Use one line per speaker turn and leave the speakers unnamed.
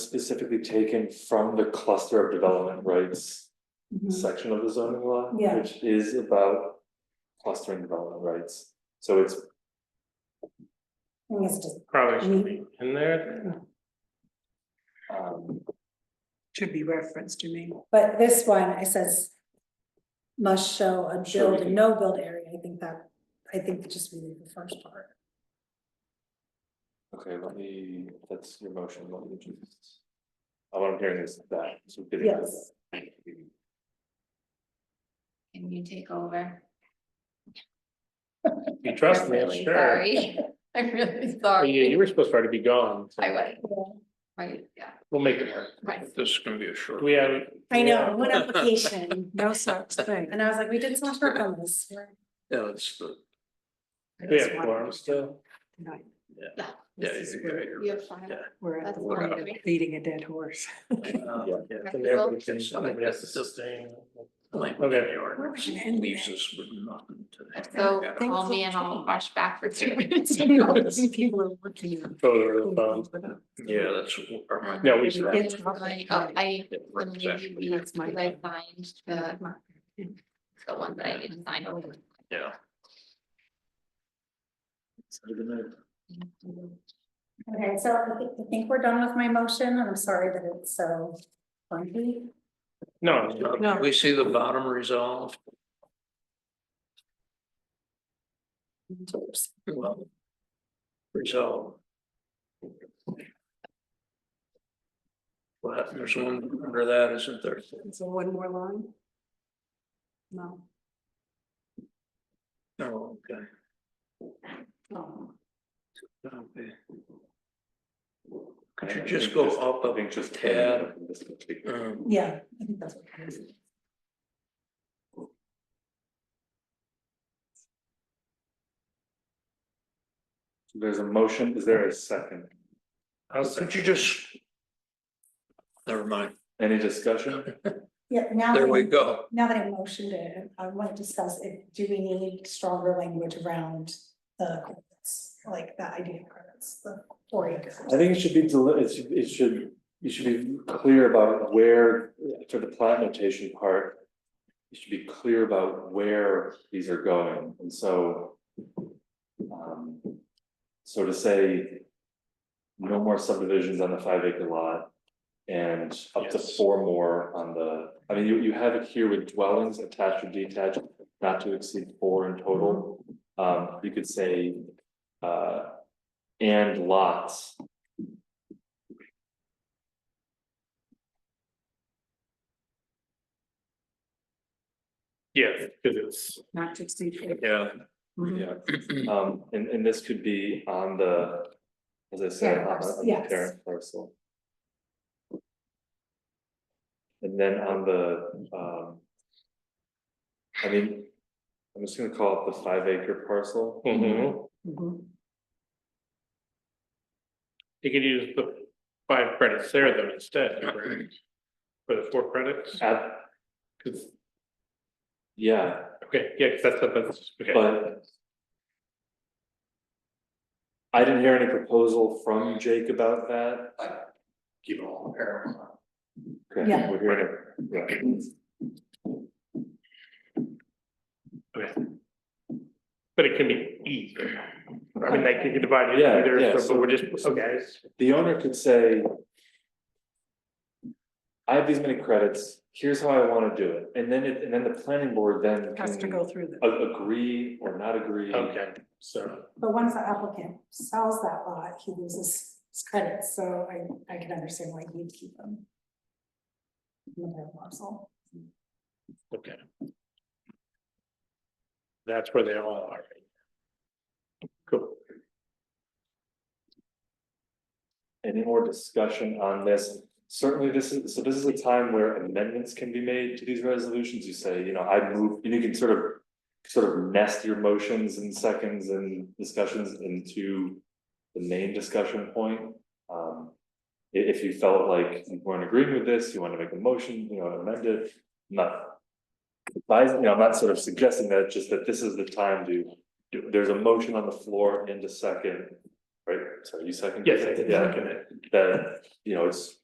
specifically taken from the cluster of development rights
Mhm.
section of the zoning law,
Yeah.
which is about clustering development rights. So it's
I think it's just
Probably should be in there.
um
Should be referenced to me.
But this one, it says. Must show a
Sure, we
build and
can-
no build area, I think that, I think just we leave the first part.
Okay, let me, that's your motion, let me just. uh, What I'm hearing is that, so getting. rid of
Yes.
that.
Can you take over?
You trust me,
I'm
I'm
really
sure. Oh,
Sorry, I'm really
Yeah, you
sorry.
were supposed to already be gone. so
I was. Right, yeah,
We'll make it work.
right.
This is gonna be a short.
Do We have.
I
yeah.
know, one application,
No such thing.
and I was like, we did some work on this. we're-
Yeah, it's the,
I
We
just
have
wanted
forms
to
still.
know tonight.
Yeah,
yeah,
This is
you're,
where
you're.
you have fun.
Yeah.
We're
That's
at the
fine.
point of beating a dead horse.
uh,
Yeah.
yeah, then everybody can- somebody has to sustain.
Language
Okay.
in the ordinance
We're gonna end
leaves
there.
us with nothing today.
So
Yeah.
call me and I'll rush back for two minutes.
People are looking. at-
Photo of the phone.
Yeah, that's. what- or my-
No, we
Um,
should-
I'm just going- oh, I,
Yeah,
when
right,
you,
exactly.
you,
That's my-
I signed the, the one that I need to sign over.
Yeah.
Okay, so I think- I think we're done with my motion, and I'm sorry that it's so funky.
No, no,
Uh, We see the bottom resolved. Well, Resolved. Well, there's one under that, isn't there?
So one more line? No.
Oh, okay.
Oh.
Okay. Could you just go up
I
a
think just.
tad?
This would be-
Um,
Yeah, I think that's what it is.
There's a motion, is there a second?
I'll
Could
second.
you just? Never mind,
Any
Uh,
discussion?
Yeah, now
there
that,
we
I-
go.
now that I motioned it, I want to discuss it, do we need stronger language around the credits? Like the idea of credits, the four acres.
I think it should be, deli- it should, it should, you should be clear about where, for the plat notation part. You should be clear about where these are going, and so. um, So to say. No more subdivisions on the five acre lot. And up to
Yes.
four more on the, I mean, you you have it here with dwellings attached or detached, not to exceed four in total. Um, you could say, uh, and lots.
Yeah, because it's,
Not to exceed. eight.
Yeah.
Mhm.
Yeah, um, and, and this could be on the, as I said,
Parent
on the,
parcel,
on the
yes.
parent parcel. And then on the, um. I mean, I'm just gonna call it the five acre parcel.
mhm.
Mhm.
you could use the five credits there though instead, right? For the four credits,
At,
'Cause-
yeah,
okay, yeah, 'cause that's, that's, okay,
but. I didn't hear any proposal from Jake about that.
Keep it all paramount.
Okay,
Yeah.
We're hearing, yeah.
but it can be E. I mean, they could divide it
Yeah, yeah,
either, so-
so-
but we're just, okay, it's-
the owner could say. I have these many credits, here's how I wanna do it, and then it, and then the planning board then
Has to
can
go through the.
a- agree or not agree.
okay, so.
But once the applicant sells that lot, he loses his credits, so I, I can understand why he'd keep them. in The parent parcel.
Okay. That's where they all are. Cool.
Any more discussion on this? Certainly, this is, so this is a time where amendments can be made to these resolutions, you say, you know, I move, and you can sort of. Sort of nest your motions and seconds and discussions into the main discussion point. Um, i- if you felt like you weren't agreeing with this, you want to make a motion, you know, amend it, not. advising, you know, I'm not sort of suggesting that, just that this is the time to do, there's a motion on the floor and a second. Right, so you second?
Yes, I did.
Yeah,
second it.
that, you know, it's